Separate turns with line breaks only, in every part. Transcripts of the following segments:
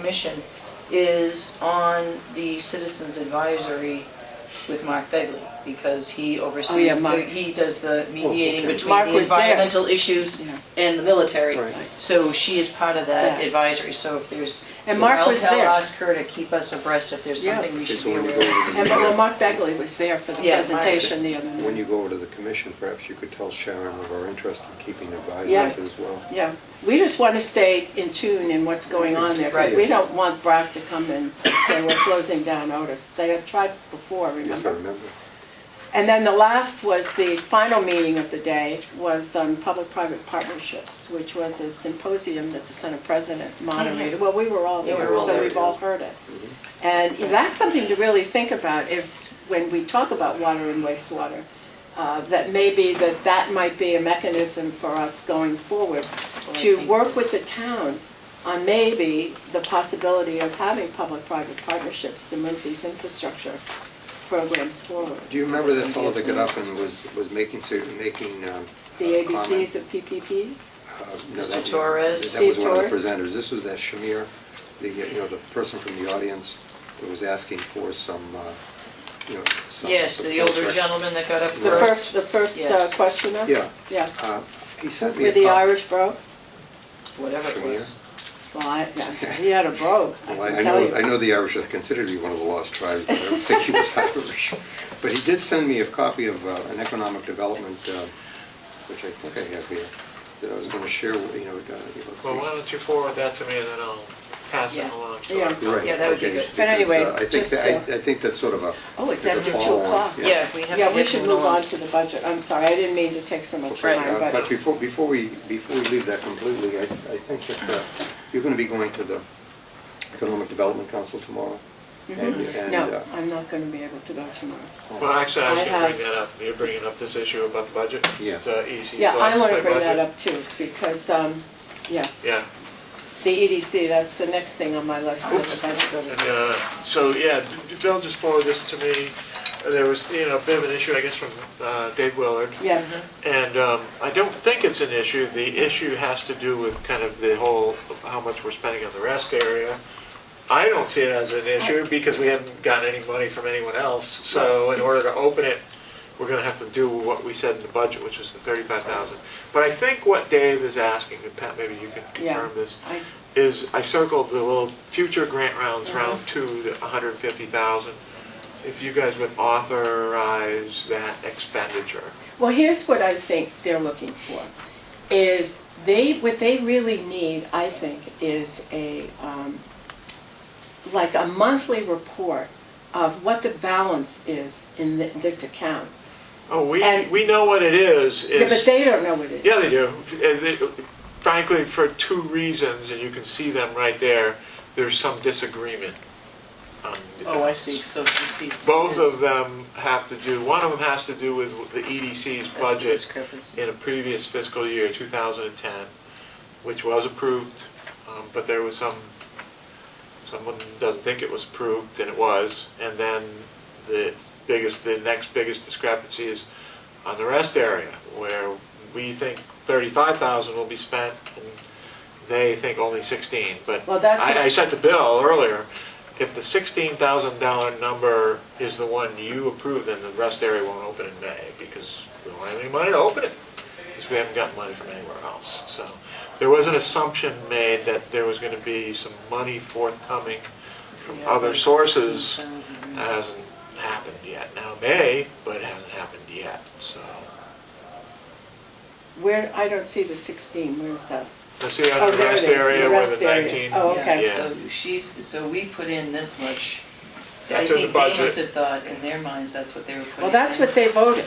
commission is on the citizens advisory with Mark Begley, because he
Oh, yeah,
oversees, the-
Mark.
he does the mediating
okay.
between
Mark
the
was there.
environmental issues
Yeah.
and the military.
Right.
So she is part of that
Yeah.
advisory, so if there's.
And Mark
I'll
was
tell
there.
ask her to keep us abreast if there's
Yeah.
something we
Okay,
should
so
be
when you
aware
go
of.
over to the-
And, well, Mark Begley was there for the
Yeah, Mark.
presentation the other night.
When you go over to the commission, perhaps you could tell Sharon of our interest in keeping advisors
Yeah.
as well.
Yeah, we just want to stay in tune in what's going on there, because
Right.
we don't want Brock to come and say we're closing down Otis. They have tried before,
Yes, I
remember?
remember.
And then the last was, the final meeting of the day was on public-private partnerships, which was a symposium that the Senate President moderated. Well, we were all
Yeah, we
there,
Oh, were all
so
there,
we've
yeah. Mm-hmm.
all heard it. And that's something to really think about if, when we talk about water and wastewater, uh, that maybe that that might be a mechanism for us going forward to work with the towns on maybe the possibility of having public-private partnerships to move these infrastructure programs forward.
Do you remember that fellow that got up and was, was making, to- making um,
The
a comment?
ABCs of PPPs?
Uh, no,
Mr.
that was-
Torres.
That was one of the
Steve Torres.
presenters. This was that Shamir, the, you know, the person from the audience that was asking for some, uh, you know, some...
Yes, the older gentleman that got up
The first,
first.
the first uh,
Yes.
questioner?
Yeah.
Yeah,
Uh, He sent me a...
with the
cop-
Irish brogue?
Whatever it
Shamir.
was.
Well, I, yeah, he had a brogue, I
Well, I I
can tell
know, I
you.
know the Irish are considered to be one of the lost tribes, but I don't think he was Irish. But he did send me a copy of uh, an economic development, uh, which I think I have here, that I was going to share, with you know, uh, let's
Well, why
see.
don't you forward that to me, and then I'll pass it
Yeah.
along to
Yeah.
our
Right,
Yeah, that would be
okay,
good.
But
because,
anyway,
uh, I think
just,
that- I
uh,
I think that's sort of a...
Oh, it's
a
after two
follow-on,
o'clock.
yeah.
Yeah, we have to
Yeah, we
get
should
moving
move on
along.
to the budget, I'm sorry, I didn't mean to take so much
Okay,
time,
uh, But
but,
before, before we, before we leave that completely, I, I think that uh, you're going to be going to the Economic Development Council tomorrow. and and,
Mm-hmm. no,
uh,
I'm not gonna be able to go tomorrow.
Well, actually, I
I
was going to
have-
bring that up. You're bringing up this issue about the budget?
Yeah.
The E EDC.
Yeah, I
want
wanna bring that up too, because, um, yeah,
Yeah.
the EDC, that's the next thing on my list, I
Oops.
don't go to
And, uh, So, yeah, d- d- Bill just forwarded this to me. There was, you know, a bit of an issue, I guess, from uh, Dave Willard.
Yes,
And um, I don't think it's an issue. The issue has to do with kind of the whole, how much we're spending on the rest area. I don't see it as an issue because we haven't gotten any money from anyone else. So in order to open it, we're going to have to do what we said in the budget, which was the 35,000. But I think what Dave is asking, and Pat, maybe you can
yeah,
confirm this,
I,
is I circled the little future grant rounds, round two, the 150,000. If you guys would authorize that expenditure.
Well, here's what I think they're looking for, is they, what they really need, I think, is a, um, like a monthly report of what the balance is in th- this account.
Oh, we,
And-
we know what it is.
Yeah, but
is-
they don't know what it is.
Yeah, they do. And they- Frankly, for two reasons, and you can see them right there, there's some disagreement. on the
Oh, I
balance.
see, so you see.
Both of them have to do, one of them has to do with the EDC's
That's the
budget
discrepancy.
in a previous fiscal year, 2010, which was approved, um, but there was some, someone doesn't think it was approved, and it was. And then the biggest, the next biggest discrepancy is on the rest area, where we think 35,000 will be spent, and they think only 16, but
Well, that's what-
I I sent the bill earlier. If the $16,000 number is the one you approve, then the rest area won't open in May, because we don't have any money to open it, because we haven't gotten money from anywhere else. So there was an assumption made that there was going to be some money forthcoming from
Yeah,
other
like
sources.
15,000.
That hasn't happened yet. Now, it may, but it hasn't happened yet, so.
Where, I don't see the sixteen, where's that?
Let's see,
Oh,
on the
there it
rest
is, the
area where
rest
the
area.
19.
Oh, okay.
yeah.
So she's, so we put in this much. I
That's in the
think they
budget.
must have thought in their minds that's what they were putting in.
Well, that's what they voted.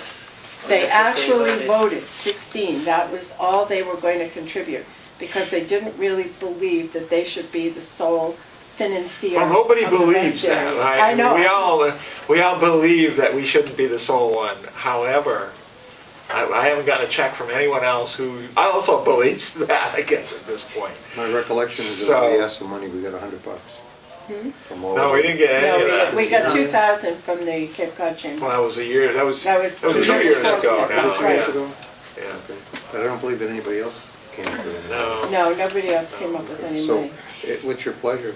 They
Oh, That's what they
actually voted 16, that was all they were going to contribute, because they didn't really believe that they should be the sole financier
Well, nobody
of the
believes
rest
that,
area.
right?
I know.
We
I'm
all,
just-
we all believe that we shouldn't be the sole one. However, I, I haven't gotten a check from anyone else who also believes that, I guess, at this point.
My recollection is that
So-
when we asked for money, we got a hundred bucks. from all
No,
of
we
them.
didn't get any of
No,
that.
we, we got 2,000 from the Cape Cod
Well,
Chamber.
that was a year, that was,
That
that
was
was
two
two
years
years
ago.
ago now.
That's
Two
right.
years
yeah,
ago?
yeah.
Okay. But I don't believe that anybody else came up with it.
No.
No, nobody else came up with any
So,
money.
it- what's your pleasure?